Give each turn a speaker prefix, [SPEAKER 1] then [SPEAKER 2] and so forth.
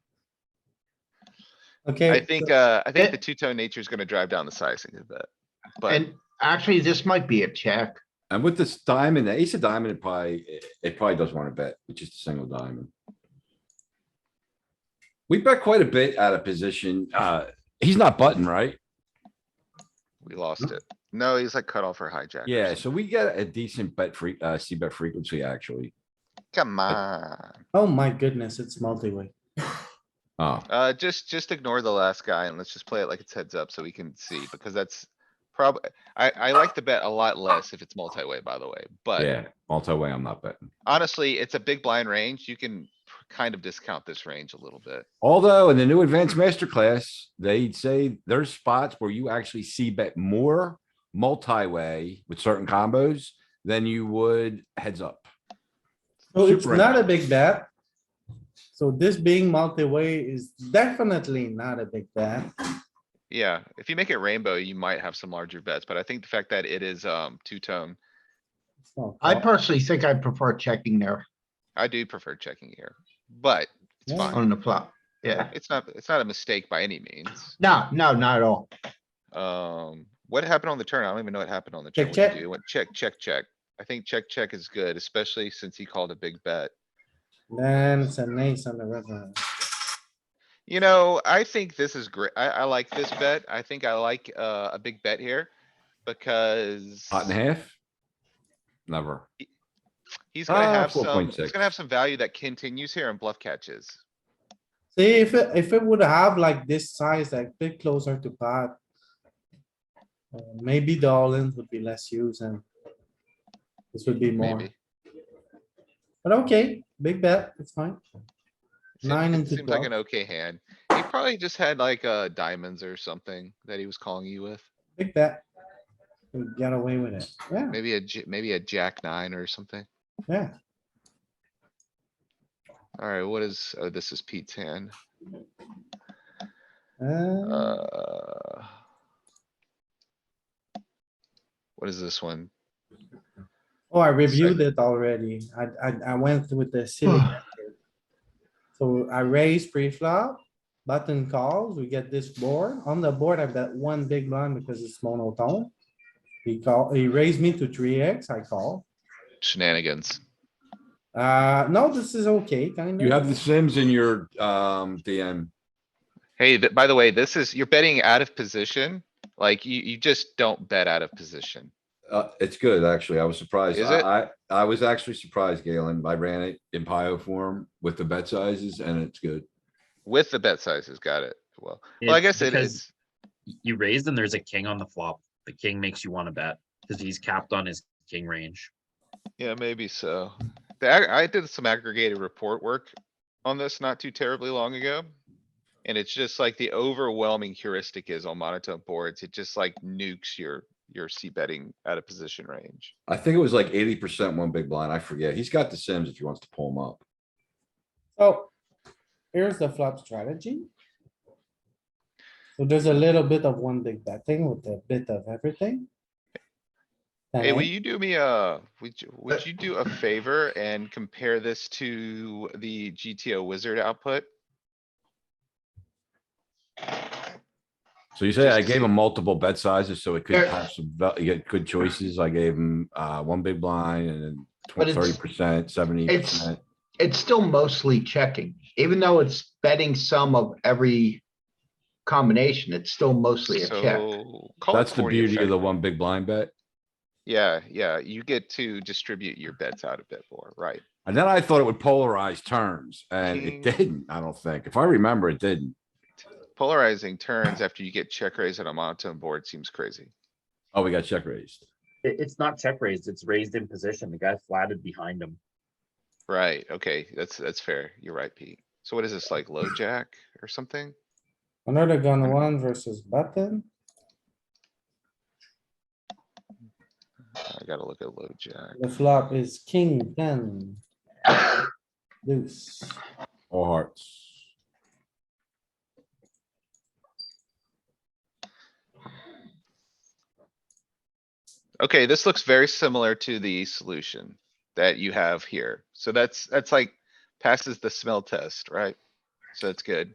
[SPEAKER 1] Okay.
[SPEAKER 2] I think, uh, I think
[SPEAKER 3] It-
[SPEAKER 2] the two-tone nature is gonna drive down the sizing of that. But
[SPEAKER 3] And actually, this might be a check.
[SPEAKER 4] And with this diamond, the ace of diamond, it probably, it probably does wanna bet, with just a single diamond. We bet quite a bit out of position. Uh, he's not button, right?
[SPEAKER 2] we
[SPEAKER 3] Mm-hmm.
[SPEAKER 2] lost it. No, he's like cut off or hijack. or
[SPEAKER 4] Yeah,
[SPEAKER 2] something.
[SPEAKER 4] so we get a decent bet free, uh, C bet frequency, actually.
[SPEAKER 2] Come on.
[SPEAKER 1] Oh my goodness, it's multi-way.
[SPEAKER 4] Oh,
[SPEAKER 2] Uh, just, just ignore the last guy and let's just play it like it's heads up so we can see, because that's probably, I, I like the bet a lot less if it's multi-way, by the way, but
[SPEAKER 4] yeah, multi-way, I'm not betting.
[SPEAKER 2] honestly, it's a big blind range. You can kind of discount this range a little bit.
[SPEAKER 4] Although in the new advanced masterclass, they say there's spots where you actually see bet more multi-way with certain combos than you would heads up.
[SPEAKER 1] So it's
[SPEAKER 4] Super
[SPEAKER 1] not a
[SPEAKER 4] enough.
[SPEAKER 1] big bet. So this being multi-way is definitely not a big bet.
[SPEAKER 2] Yeah, if you make it rainbow, you might have some larger bets, but I think the fact that it is, um, two-tone,
[SPEAKER 1] It's not
[SPEAKER 3] I
[SPEAKER 2] Oh.
[SPEAKER 1] bad.
[SPEAKER 3] personally think I prefer checking there
[SPEAKER 2] I do prefer checking here, but it's
[SPEAKER 1] Yeah.
[SPEAKER 2] fine.
[SPEAKER 3] on the flop. Yeah.
[SPEAKER 2] It's not, it's not a mistake by any means.
[SPEAKER 3] No, no, not at all.
[SPEAKER 2] Um, what happened on the turn? I don't even know what happened on the
[SPEAKER 1] Check,
[SPEAKER 2] turn. What did
[SPEAKER 1] check.
[SPEAKER 2] you do? It Went check, check, check. I think check, check is good, especially since he called a big bet.
[SPEAKER 1] Then it's an ace on the river.
[SPEAKER 2] You know, I think this is great. I, I like this bet. I think I like, uh, a big bet here. Because
[SPEAKER 4] Pot and a half? Never.
[SPEAKER 2] he's gonna
[SPEAKER 4] Ah,
[SPEAKER 2] have some, he's
[SPEAKER 4] 4.6.
[SPEAKER 2] gonna have some value that continues here in bluff catches.
[SPEAKER 1] See, if it, if it would have like this size, like bit closer to pot. uh, Maybe the all-in would be less used and this would be more,
[SPEAKER 2] Maybe.
[SPEAKER 1] but okay, big bet, it's fine.
[SPEAKER 2] Seem-
[SPEAKER 1] Nine
[SPEAKER 2] it
[SPEAKER 1] into
[SPEAKER 2] Seems like
[SPEAKER 1] twelve.
[SPEAKER 2] an okay hand. He probably just had like, uh, diamonds or something that he was calling you with.
[SPEAKER 1] Big bet. We got away with it. Yeah,
[SPEAKER 2] Maybe a, j- maybe a jack nine or something.
[SPEAKER 1] yeah.
[SPEAKER 2] Alright, what is, oh, this is Pete's hand.
[SPEAKER 1] Uh,
[SPEAKER 2] Uh, What is this one?
[SPEAKER 1] oh, I reviewed it already. I, I, I went with the silly. method. So I raise pre-flop, button calls, we get this board. On the board, I bet one big blind because it's monotone. He call, he raised me to three X, I call.
[SPEAKER 2] Shenanigans.
[SPEAKER 1] Uh, no, this is okay, kind of.
[SPEAKER 4] You have the Sims in your, um, DM.
[SPEAKER 2] Hey, th- by the way, this is, you're betting out of position. Like you, you just don't bet out of position.
[SPEAKER 4] Uh, it's good, actually. I was surprised.
[SPEAKER 2] Is
[SPEAKER 4] I,
[SPEAKER 2] it?
[SPEAKER 4] I, I was actually surprised, Galen. I ran it in Pio form with the bet sizes and it's good.
[SPEAKER 2] With the bet sizes, got it. Well, well, I
[SPEAKER 5] It's
[SPEAKER 2] guess it
[SPEAKER 5] because
[SPEAKER 2] is.
[SPEAKER 5] y- You raise and there's a king on the flop. The king makes you want to bet because he's capped on his king range.
[SPEAKER 2] Yeah, maybe so. The ag- I did some aggregated report work on this not too terribly long ago. And it's just like the overwhelming heuristic is on monotone boards. It just like nukes your, your C betting out of position range.
[SPEAKER 4] I think it was like eighty percent one big blind. I forget. He's got the Sims if he wants to pull him up.
[SPEAKER 1] So here's the flop strategy. So there's a little bit of one big betting with a bit of everything.
[SPEAKER 2] Hey, will
[SPEAKER 1] And-
[SPEAKER 2] you do me a, would you, would you do a favor and compare this to the GTO wizard output?
[SPEAKER 4] So you say I
[SPEAKER 2] Just to
[SPEAKER 4] gave
[SPEAKER 2] see.
[SPEAKER 4] him multiple bet sizes, so it could
[SPEAKER 3] There-
[SPEAKER 4] have some, val- you get good choices. I gave him, uh, one big blind and
[SPEAKER 3] But
[SPEAKER 4] then
[SPEAKER 3] it's-
[SPEAKER 4] thirty percent, seventy percent.
[SPEAKER 3] It's still mostly checking, even though it's betting some of every combination, it's still mostly a check.
[SPEAKER 2] So. call it
[SPEAKER 4] That's the
[SPEAKER 2] 40
[SPEAKER 4] beauty of the
[SPEAKER 2] effective.
[SPEAKER 4] one big blind bet.
[SPEAKER 2] Yeah, yeah, you get to distribute your bets out a bit more, right?
[SPEAKER 4] And then I thought it would polarize turns and it
[SPEAKER 2] King.
[SPEAKER 4] didn't, I don't think. If I remember, it didn't.
[SPEAKER 2] Polarizing turns after you get check raised on a monotone board seems crazy.
[SPEAKER 4] Oh, we got check raised.
[SPEAKER 5] It, it's not check raised. It's raised in position. The guy flatted behind him.
[SPEAKER 2] Right, okay, that's, that's fair. You're right, Pete. So what is this, like low jack or something?
[SPEAKER 1] Under the gun one versus button,
[SPEAKER 2] I gotta look at low jack.
[SPEAKER 1] the flop is king ten. Deuce.
[SPEAKER 4] All hearts.
[SPEAKER 2] Okay, this looks very similar to the solution that you have here. So that's, that's like passes the smell test, right? So that's good.